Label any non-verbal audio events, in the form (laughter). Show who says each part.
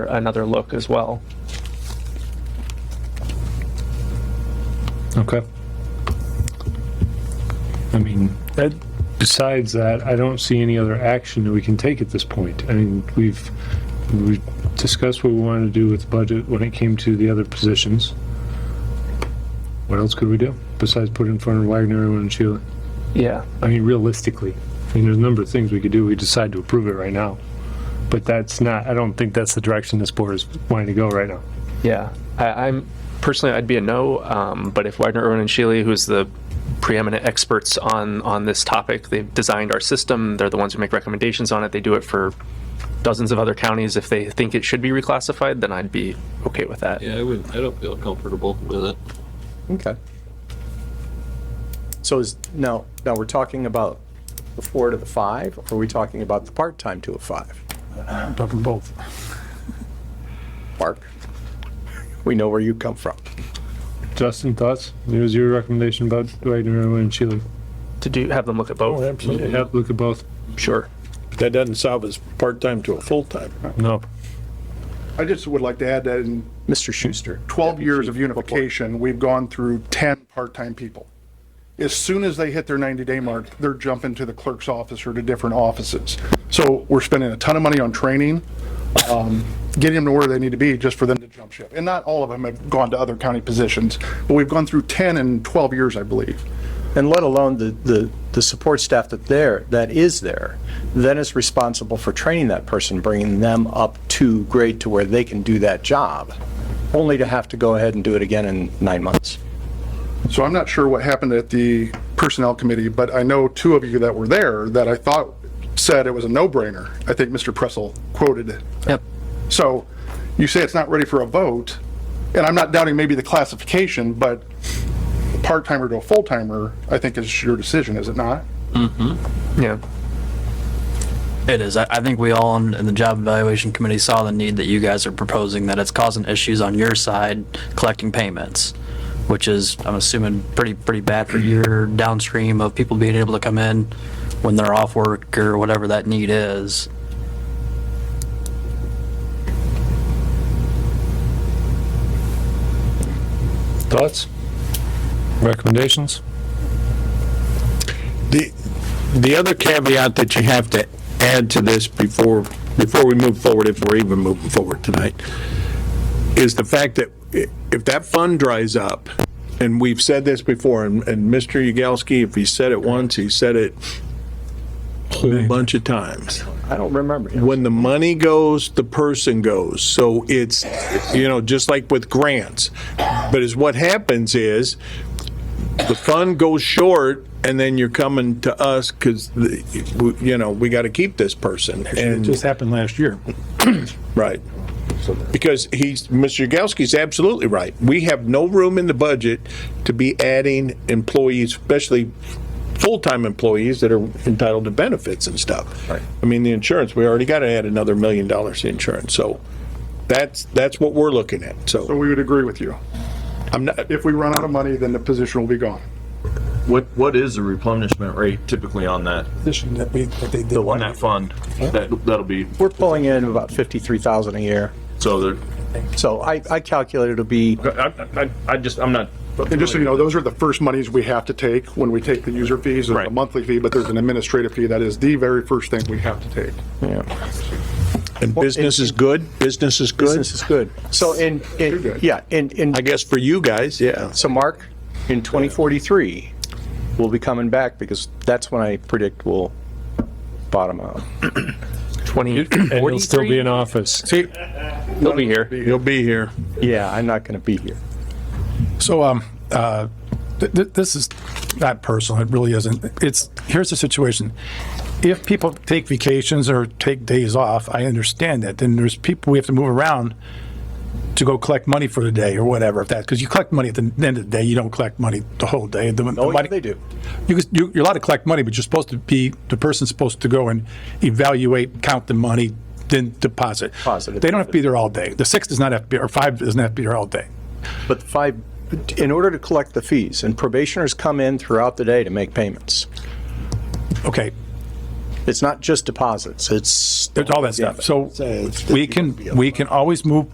Speaker 1: another look as well.
Speaker 2: Okay. I mean, that, besides that, I don't see any other action that we can take at this point. I mean, we've, we've discussed what we wanted to do with the budget when it came to the other positions. What else could we do besides put it in front of Wagner and Sheila?
Speaker 1: Yeah.
Speaker 2: I mean, realistically, I mean, there's a number of things we could do. We decide to approve it right now. But that's not, I don't think that's the direction this board is wanting to go right now.
Speaker 1: Yeah, I, I'm personally, I'd be a no. Um, but if Widener, Irwin, and Shealy, who's the preeminent experts on on this topic, they've designed our system. They're the ones who make recommendations on it. They do it for dozens of other counties. If they think it should be reclassified, then I'd be okay with that.
Speaker 3: Yeah, I would. I don't feel comfortable with it.
Speaker 4: Okay. So is, now, now we're talking about the four to the five, or are we talking about the part-time to a five?
Speaker 2: But both.
Speaker 4: Mark, we know where you come from.
Speaker 2: Justin, thoughts? It was your recommendation about Wagner and Sheila.
Speaker 1: To do have them look at both.
Speaker 5: Oh, absolutely.
Speaker 2: Yeah, look at both.
Speaker 1: Sure.
Speaker 5: But That doesn't solve his part-time to a full-time.
Speaker 2: No.
Speaker 6: I just would like to add that in
Speaker 4: Mr. Schuster,
Speaker 6: 12 years of unification, we've gone through 10 part-time people. As soon as they hit their 90-day mark, they're jumping to the clerk's office or to different offices. So we're spending a ton of money on training, um, getting them to where they need to be just for them to jump ship. And not all of them have gone to other county positions, but we've gone through 10 in 12 years, I believe.
Speaker 4: and let alone the, the, the support staff that there, that is there, then is responsible for training that person, bringing them up to grade to where they can do that job, only to have to go ahead and do it again in nine months.
Speaker 6: So I'm not sure what happened at the Personnel Committee, but I know two of you that were there that I thought said it was a no-brainer. I think Mr. Pressel quoted it.
Speaker 1: Yep.
Speaker 6: So you say it's not ready for a vote, and I'm not doubting maybe the classification, but part-timer to a full-timer, I think is your decision, is it not?
Speaker 1: Yeah.
Speaker 7: It is. I, I think we all on in the job evaluation committee saw the need that you guys are proposing, that it's causing issues on your side collecting payments, which is, I'm assuming, pretty, pretty bad for your downstream of people being able to come in when they're off work or whatever that need is.
Speaker 2: Thoughts? Recommendations?
Speaker 5: The, the other caveat that you have to add to this before, before we move forward, if we're even moving forward tonight, is the fact that i- if that fund dries up, and we've said this before, and, and Mr. Yagowski, if he said it once, he said it a whole bunch of times.
Speaker 4: I don't remember.
Speaker 5: when the money goes, the person goes. So it's, you know, just like with grants. But is what happens is the fund goes short and then you're coming to us because, you know, we got to keep this person. And
Speaker 2: happened last year.
Speaker 5: Right. Because he's, Mr. Yagowski's absolutely right. We have no room in the budget to be adding employees, especially full-time employees that are entitled to benefits and stuff. Right. I mean, the insurance, we already got to add another million dollars to insurance, so that's, that's what we're looking at,
Speaker 6: So
Speaker 5: so
Speaker 6: we would agree with you.
Speaker 5: I'm not,
Speaker 6: If we run out of money, then the position will be gone.
Speaker 8: What, what is the replenishment rate typically on that,
Speaker 5: position that we, that they did.
Speaker 8: on that fund? That, that'll be,
Speaker 4: We're pulling in about 53,000 a year.
Speaker 8: so there,
Speaker 4: So I, I calculate it'll be
Speaker 8: I, I, I just, I'm not.
Speaker 6: And just so you know, those are the first monies we have to take when we take the user fees, there's a
Speaker 8: Right.
Speaker 6: monthly fee, but there's an administrative fee. That is the very first thing we have to take.
Speaker 5: And business is good, business is good,
Speaker 4: Business is good. So in, in,
Speaker 6: good.
Speaker 4: yeah, in, in,
Speaker 5: I guess for you guys, yeah.
Speaker 4: so Mark, in 2043, we'll be coming back because that's when I predict we'll bottom out.
Speaker 1: Twenty.
Speaker 2: (coughs) And he'll still be in office.
Speaker 5: See,
Speaker 1: They'll be here.
Speaker 5: you'll be here.
Speaker 4: Yeah, I'm not going to be here.
Speaker 9: So, um, uh, th- th- this is not personal. It really isn't. It's, here's the situation. If people take vacations or take days off, I understand that. Then there's people we have to move around to go collect money for the day or whatever, if that, because you collect money at the end of the day, you don't collect money the whole day. The- the
Speaker 4: Oh, yeah,
Speaker 9: money-
Speaker 4: they do.
Speaker 9: you, could- you- you're allowed to collect money, but you're supposed to be, the person's supposed to go and evaluate, count the money, then deposit.
Speaker 4: Deposit it.
Speaker 9: They don't have to be there all day. The six does not have to be, or five doesn't have to be there all day.
Speaker 4: But the five, in order to collect the fees, and probationers come in throughout the day to make payments.
Speaker 9: Okay.
Speaker 10: It's not just deposits, it's
Speaker 4: There's all that stuff. So we can, we can always move